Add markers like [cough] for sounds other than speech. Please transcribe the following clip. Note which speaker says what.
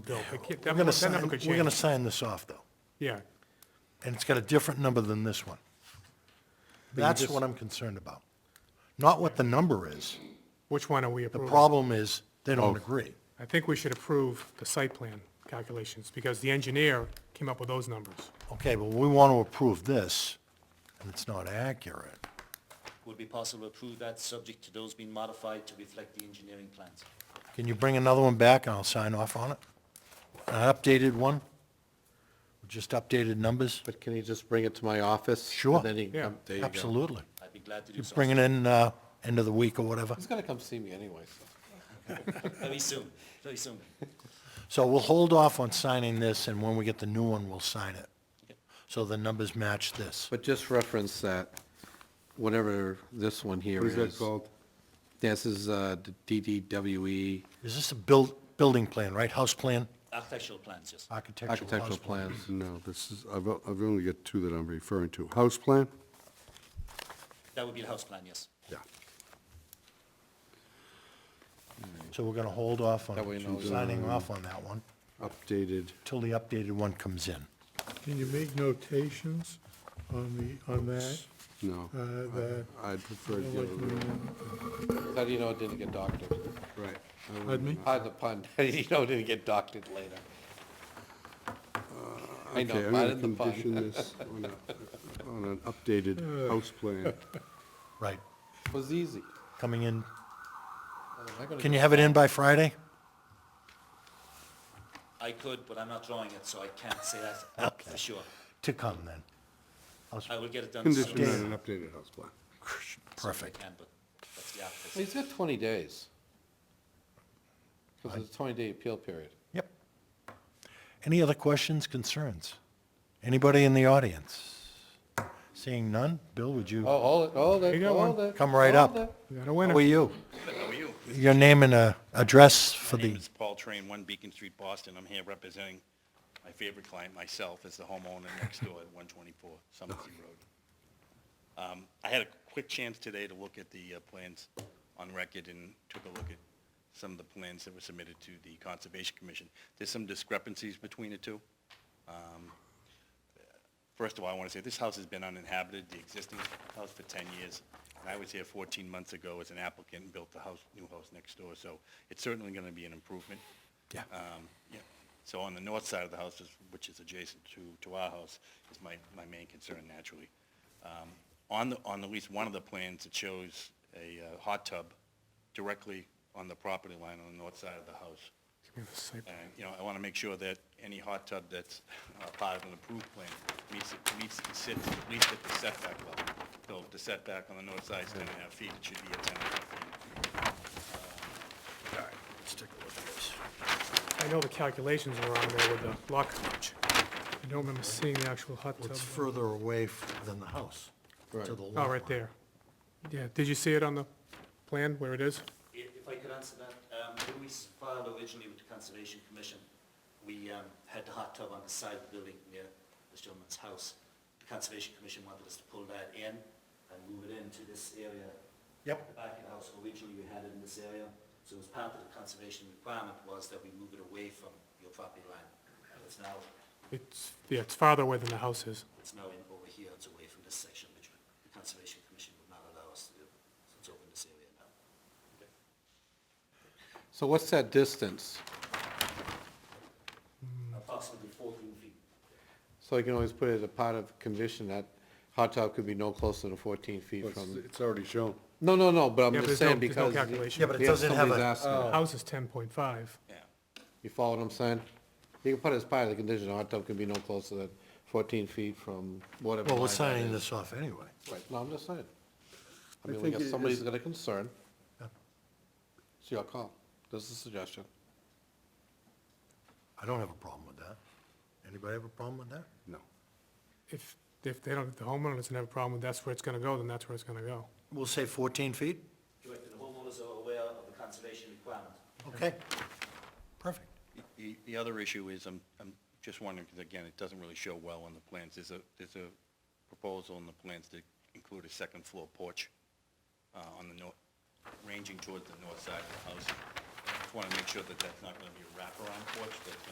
Speaker 1: Bill, but yeah,
Speaker 2: We're
Speaker 1: that
Speaker 2: gonna
Speaker 1: number- that
Speaker 2: sign,
Speaker 1: number
Speaker 2: we're
Speaker 1: could
Speaker 2: gonna
Speaker 1: change.
Speaker 2: sign this off, though,
Speaker 1: Yeah,
Speaker 2: and it's got a different number than this one. That's
Speaker 3: just-
Speaker 2: what I'm concerned about. Not what the number is.
Speaker 1: which one are we
Speaker 2: The
Speaker 1: approving?
Speaker 2: problem is, they
Speaker 3: oh.
Speaker 2: don't agree.
Speaker 1: I think we should approve the site plan calculations, because the engineer came up with those numbers.
Speaker 2: Okay, but we want to approve this, and it's not accurate.
Speaker 4: Would be possible to approve that, subject to those being modified to reflect the engineering plans.
Speaker 2: Can you bring another one back, and I'll sign off on it? An updated one? Just updated numbers?
Speaker 3: But can you just bring it to my office?
Speaker 2: Sure.
Speaker 3: And then you can
Speaker 1: Yeah.
Speaker 3: come, there you go.
Speaker 2: Absolutely.
Speaker 4: I'd be glad to do
Speaker 2: You
Speaker 4: so.
Speaker 2: bring it in, uh, end of the week or whatever.
Speaker 3: He's gonna come see me anyway, so.
Speaker 4: Very soon, very soon.
Speaker 2: So we'll hold off on signing this, and when we get the new one, we'll sign it. So the numbers match this.
Speaker 3: But just reference that, whatever this one here is. This is uh, the DDWE
Speaker 2: Is this a build, building plan, right? House plan,
Speaker 4: Architectural plans, yes.
Speaker 2: Uh, architectural house
Speaker 3: architectural
Speaker 2: plan?
Speaker 3: plans.
Speaker 5: No, this is, I've, I've only got two that I'm referring to. House plan?
Speaker 4: That would be the house plan, yes.
Speaker 5: Yeah.
Speaker 2: So we're gonna hold off
Speaker 3: That way you know-
Speaker 2: on signing off on that one
Speaker 5: Updated.
Speaker 2: till the updated one comes in.
Speaker 6: Can you make notations on the, on that?
Speaker 5: No.
Speaker 6: Uh, that-
Speaker 5: I'd prefer the other way.
Speaker 1: Hmm.
Speaker 3: How do you know it didn't get doctored?
Speaker 5: Right. I would-
Speaker 6: Pardon me?
Speaker 3: Pardon the pun, [laughs] how do you know it didn't get doctored later? I know,
Speaker 5: Okay, I'm
Speaker 3: pardon
Speaker 5: going
Speaker 3: the
Speaker 5: to
Speaker 3: pun.
Speaker 5: condition this on a- on an updated house plan.
Speaker 2: Right,
Speaker 3: It was easy.
Speaker 2: coming in.
Speaker 3: Am I gonna
Speaker 2: Can
Speaker 3: do-
Speaker 2: you have it in by Friday?
Speaker 4: I could, but I'm not drawing it, so I can't say that for sure.
Speaker 2: To come then.
Speaker 4: I will get it done as soon
Speaker 5: Condition
Speaker 4: as
Speaker 5: on an updated house plan.
Speaker 4: I
Speaker 2: Perfect.
Speaker 4: can, but that's the
Speaker 3: Well,
Speaker 4: architect.
Speaker 3: He's got 20 days. Because it's a 20-day appeal period.
Speaker 2: Yep. Any other questions, concerns? Anybody in the audience? Seeing none? Bill, would you?
Speaker 3: Oh, hold it, hold
Speaker 1: You
Speaker 3: it,
Speaker 1: got one.
Speaker 3: hold it.
Speaker 2: Come right up.
Speaker 3: hold it.
Speaker 1: Is that a
Speaker 2: How are
Speaker 1: winner?
Speaker 2: you? Your name and uh, address for
Speaker 7: My name
Speaker 2: the,
Speaker 7: is Paul Train, One Beacon Street, Boston. I'm here representing my favorite client, myself, as the homeowner next door at 124 Somerset Road. Um, I had a quick chance today to look at the uh, plans on record and took a look at some of the plans that were submitted to the Conservation Commission. There's some discrepancies between the two. Um, First of all, I want to say this house has been uninhabited, the existing house for 10 years. And I was here 14 months ago as an applicant and built the house, new house next door, so it's certainly going to be an improvement.
Speaker 2: Yeah.
Speaker 1: Uh,
Speaker 7: Um, yeah. So on the north side of the house, is- which is adjacent to, to our house, is my, my main concern naturally. Um, On the, on at least one of the plans, it shows a uh, hot tub directly on the property line on the north side of the house.
Speaker 1: Give me the site plan.
Speaker 7: And, you know, I want to make sure that any hot tub that's uh, part of an approved plan meets, meets, and sits at least at the setback level. So if the setback on the north side is ten and a half feet, it should be at ten and a half feet.
Speaker 1: I know the calculations were on there with the lot coverage. I don't remember seeing the actual hot tub.
Speaker 2: it's further away f- than the house. to
Speaker 3: Right.
Speaker 2: the
Speaker 1: Oh,
Speaker 2: lot
Speaker 1: right
Speaker 2: line.
Speaker 1: there. Yeah, did you see it on the plan where it is?
Speaker 4: If if I could answer that, um, when we s- filed originally with the Conservation Commission, we um, had the hot tub on the side of the building near this gentleman's house. The Conservation Commission wanted us to pull that in and move it into this area
Speaker 2: Yep.
Speaker 4: the back of the house, originally we had it in this area, so as part of the conservation requirement was that we move it away from your property line. And It's now,
Speaker 1: It's, yeah, it's farther away than the house is.
Speaker 4: it's now in over here, it's away from this section, which the Conservation Commission would not allow us to do, so it's over in this area now.
Speaker 3: So what's that distance?
Speaker 4: Approximately fourteen feet.
Speaker 3: So you can always put it as a part of condition that hot tub could be no closer than 14 feet
Speaker 5: It's
Speaker 3: from,
Speaker 5: it's already shown.
Speaker 3: no, no, no, but I'm
Speaker 1: Yeah, but there's
Speaker 3: just
Speaker 1: no-
Speaker 3: saying
Speaker 1: there's
Speaker 3: because.
Speaker 1: no calculation.
Speaker 2: Yeah, but it
Speaker 3: Yeah,
Speaker 2: doesn't have
Speaker 3: somebody's
Speaker 2: a, Oh.
Speaker 3: asking.
Speaker 1: The house is ten point five.
Speaker 7: Yeah.
Speaker 3: You follow what I'm saying? You can put it as part of the condition, a hot tub can be no closer than 14 feet from whatever.
Speaker 2: well, we're
Speaker 3: line that
Speaker 2: signing
Speaker 3: is.
Speaker 2: this off anyway.
Speaker 3: Right, no, I'm just saying. I
Speaker 5: I
Speaker 3: mean, we
Speaker 5: think
Speaker 3: got
Speaker 5: it
Speaker 3: somebody's
Speaker 5: is-
Speaker 3: got a concern.
Speaker 2: Yeah.
Speaker 3: It's your call. This is a suggestion.
Speaker 2: I don't have a problem with that. Anybody have a problem with that?
Speaker 5: No.
Speaker 1: If, if they don't, if the homeowner doesn't have a problem, that's where it's gonna go, then that's where it's gonna go.
Speaker 2: We'll say 14 feet?
Speaker 4: Correct, and the homeowners are aware of the conservation requirement.
Speaker 2: Okay. Perfect.
Speaker 7: The, the other issue is, I'm, I'm just wondering, because again, it doesn't really show well on the plans. There's a, there's a proposal in the plans to include a second floor porch uh, on the north, ranging towards the north side of the house. Just want to make sure that that's not going to be a wraparound porch, that's going to